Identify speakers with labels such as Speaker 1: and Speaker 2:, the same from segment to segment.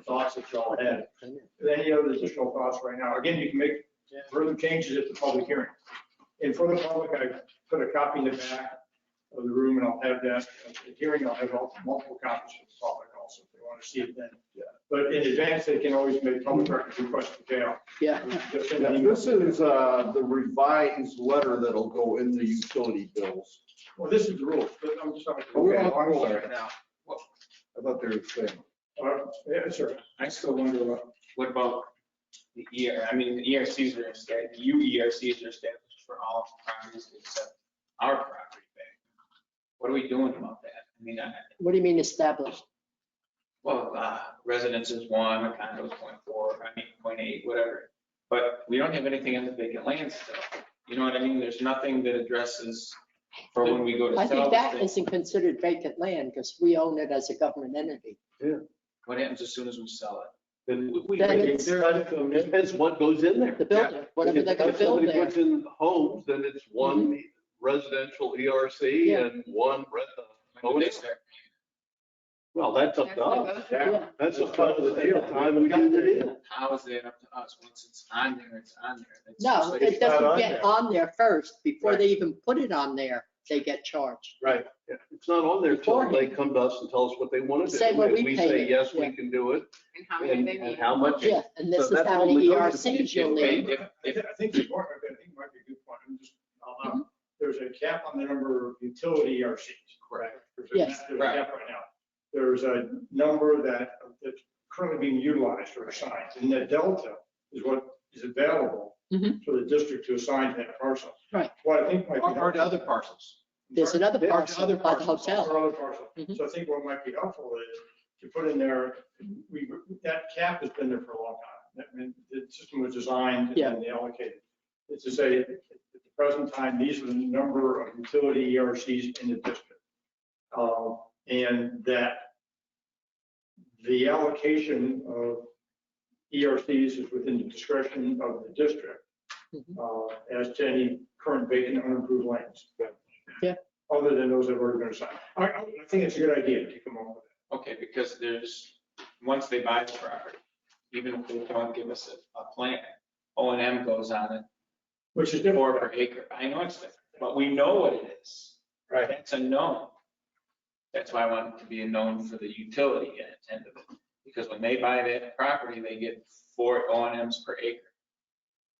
Speaker 1: costs that y'all had. Any other additional costs right now? Again, you can make further changes at the public hearing. And for the public, I put a copy in the back of the room and I'll have that, at the hearing, I'll have all- multiple copies for the public also, if they want to see it then. But in advance, they can always make public records request to jail.
Speaker 2: Yeah.
Speaker 1: Just send an
Speaker 3: Yeah,
Speaker 1: email.
Speaker 3: This is uh, the revised letter that'll go in the utility bills.
Speaker 1: Well, this is the rules, but I'm just talking.
Speaker 3: Okay, I'm sorry.
Speaker 1: Right now.
Speaker 3: I thought they were saying.
Speaker 1: Uh, Yeah, sure.
Speaker 4: I still wonder what, what about the ER, I mean, the ERCs are established, you ERCs E are established for all properties except our property back. What are we doing about that? I mean, I,
Speaker 2: What do you mean established?
Speaker 4: well, uh, residences one, a condo's point four, I mean, point eight, whatever. But we don't have anything on the vacant land still. You know what I mean? There's nothing that addresses for when we go to
Speaker 2: I
Speaker 4: sell
Speaker 2: think
Speaker 4: this
Speaker 2: that
Speaker 4: thing.
Speaker 2: isn't considered vacant land because we own it as a government entity.
Speaker 4: What happens as soon as we sell it?
Speaker 5: Then we-
Speaker 2: Then
Speaker 5: we-
Speaker 2: it's-
Speaker 5: It depends what goes in there.
Speaker 2: The building, whatever they're gonna
Speaker 5: If
Speaker 2: build
Speaker 5: Somebody
Speaker 2: there. Mm-hmm.
Speaker 5: puts in homes, then it's one residential ERC
Speaker 2: Yeah.
Speaker 5: and one rent.
Speaker 4: When do they
Speaker 5: yeah.
Speaker 4: start?
Speaker 5: Well, that's up to us.
Speaker 2: Yeah.
Speaker 5: That's a part of the deal, time we got it in.
Speaker 4: How is that up to us? Once it's on there, it's on there. It's just
Speaker 2: No,
Speaker 4: like-
Speaker 2: it
Speaker 1: It's not
Speaker 2: doesn't
Speaker 1: on
Speaker 2: get
Speaker 1: there.
Speaker 2: on there first. Before
Speaker 5: Right.
Speaker 2: they even put it on there, they get charged.
Speaker 5: Right. It's not on there till they come to us and tell us what they want to do.
Speaker 2: Say what
Speaker 5: And
Speaker 2: we
Speaker 5: We
Speaker 2: paid
Speaker 5: say,
Speaker 2: it,
Speaker 5: yes,
Speaker 2: yeah.
Speaker 5: we can do it.
Speaker 6: And how many
Speaker 5: And
Speaker 6: they
Speaker 5: and
Speaker 6: need.
Speaker 5: how much?
Speaker 2: Yeah, and this
Speaker 5: So
Speaker 2: is
Speaker 5: that's
Speaker 2: how E
Speaker 5: what
Speaker 2: many
Speaker 5: we go to
Speaker 2: ERCs you'll
Speaker 4: If-
Speaker 2: need.
Speaker 4: if-
Speaker 1: I thi- I think the board, I think might be a good point. I'm just, I'll,
Speaker 4: Mm-hmm.
Speaker 1: um, there's a cap on the number of utility ERCs. Correct. There's a
Speaker 2: Yes.
Speaker 1: cap- There's a cap right now. There's a number that, that's currently being utilized or assigned, and the delta is what is available
Speaker 7: Mm-hmm.
Speaker 2: Mhm.
Speaker 1: for the district to assign to that parcel.
Speaker 2: Right.
Speaker 1: What I think might be.
Speaker 7: Or to other parcels.
Speaker 2: There's another
Speaker 7: There's
Speaker 2: parcel
Speaker 7: other
Speaker 2: by the
Speaker 7: parcels.
Speaker 2: hotel.
Speaker 1: Or other parcel.
Speaker 2: Mhm.
Speaker 1: So I think what might be helpful is to put in there, we, that cap has been there for a long time. I mean, the system was designed
Speaker 2: Yeah.
Speaker 1: and allocated. It's to say, at the present time, these are the number of utility ERCs in the district. Um, And that the allocation of ERCs is within the discretion of the district
Speaker 2: Mhm.
Speaker 1: uh, as to any current vacant unimproved lands other than those that have already been assigned. I, I I think it's a good idea to come up with
Speaker 4: Okay, because there's, once they buy the property, even if they don't give us a, a plan, O and M goes on it,
Speaker 1: it, which is different.
Speaker 4: four per acre. I know it's different, but we know what it is.
Speaker 1: Right.
Speaker 4: That's a known. That's why I want it to be a known for the utility and end of it. Because when they buy that property, they get four O and Ms per acre.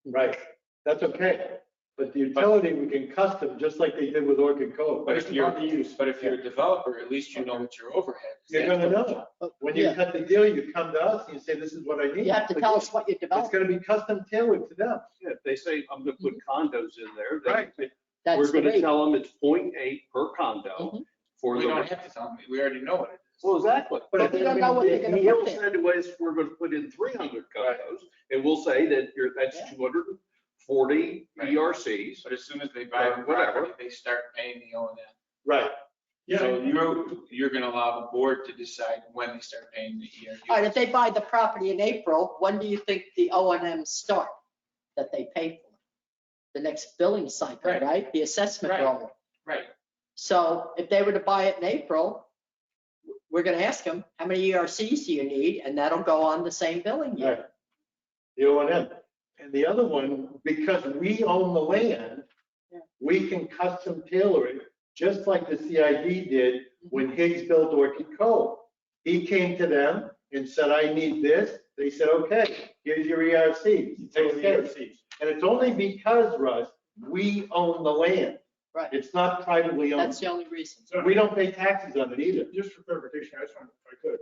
Speaker 8: Right, that's okay, but the utility, we can custom, just like they did with Orchid Cove.
Speaker 4: But if
Speaker 8: Based
Speaker 4: you're,
Speaker 8: upon the use.
Speaker 4: but if you're a developer, at least you know what your overhead is.
Speaker 8: You're gonna know,
Speaker 2: But,
Speaker 8: when you
Speaker 2: yeah,
Speaker 8: cut the deal, you come to us and you say, this is what I need.
Speaker 2: You have to tell us what you're
Speaker 8: It's
Speaker 2: developing.
Speaker 8: gonna be custom tailored to them.
Speaker 5: Yeah, If they say, I'm going to put condos in there, then
Speaker 2: Mm-hmm. That's
Speaker 5: we're
Speaker 2: the
Speaker 5: going to
Speaker 2: rate.
Speaker 5: tell them it's 0.8 per condo
Speaker 2: Mhm.
Speaker 5: for
Speaker 4: We
Speaker 5: the
Speaker 4: don't have to tell them, we already know what it is.
Speaker 5: Well, exactly.
Speaker 2: But
Speaker 5: But
Speaker 2: we
Speaker 5: if
Speaker 2: don't know what they're gonna
Speaker 5: Neil
Speaker 2: put there.
Speaker 5: said was, we're gonna put in three hundred condos, and we'll say that you're, that's
Speaker 2: Yeah.
Speaker 5: two hundred and forty E
Speaker 4: Right.
Speaker 5: ERCs.
Speaker 4: But as soon as they buy the
Speaker 5: Whatever.
Speaker 4: property, they start paying the O and M.
Speaker 8: Right.
Speaker 1: Yeah,
Speaker 4: So you're, you're gonna allow the board to decide when they start paying the E
Speaker 2: All right, if
Speaker 4: ERU.
Speaker 2: they buy the property in April, when do you think the O and M start that they pay for? The next billing cycle,
Speaker 4: Right.
Speaker 2: right? The assessment
Speaker 4: Right.
Speaker 2: roll.
Speaker 4: Right,
Speaker 2: So if they were to buy it in April, we're gonna ask them, how many ERCs do you need? And that'll go on the same billing year.
Speaker 8: Right. The O and M. And the other one, because we own the land,
Speaker 2: Yeah.
Speaker 8: we can custom tailor it, just like the CID did when Higgs built Orchid Cove. He came to them and said, I need this. They said, okay, here's your E ERC.
Speaker 1: utility
Speaker 8: Okay.
Speaker 1: ERCs.
Speaker 8: And it's only because, Russ, we own the land.
Speaker 2: Right.
Speaker 8: It's not privately
Speaker 2: That's
Speaker 8: owned.
Speaker 2: the only reason.
Speaker 1: So
Speaker 8: We don't pay taxes on it either.
Speaker 1: Just for clarification, I just want, if I could,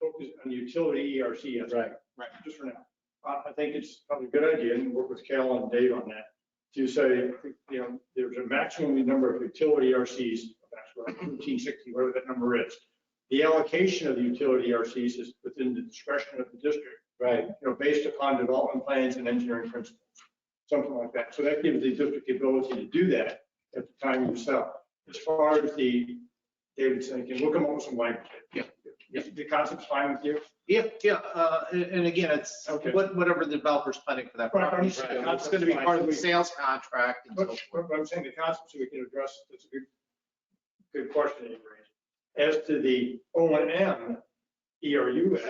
Speaker 1: focus on the utility ERC. as-
Speaker 8: Right.
Speaker 1: Right, just for now. I, I think it's probably a good idea, and work with Cal and Dave on that, to say, you know, there's a maximum number of utility ERCs, that's what, 1560, whatever that number is. The allocation of the utility ERCs is within the discretion of the district.
Speaker 8: Right.
Speaker 1: you know, based upon development plans and engineering principles, something like that. So that gives the district the ability to do that at the time you sell. As far as the, David's thinking, we'll come up with some language.
Speaker 7: Yeah.
Speaker 1: If The concept's fine with you?
Speaker 7: Yeah, yeah, uh, and and again, it's
Speaker 1: Okay.
Speaker 7: what- whatever the developer's planning for that
Speaker 1: Right, I'm
Speaker 7: property.
Speaker 1: just-
Speaker 7: It's gonna be part of the sales contract and so
Speaker 1: But
Speaker 7: forth.
Speaker 1: but I'm saying the concept, so we can address, that's a good, E good question that you raised. As to the O and M ERU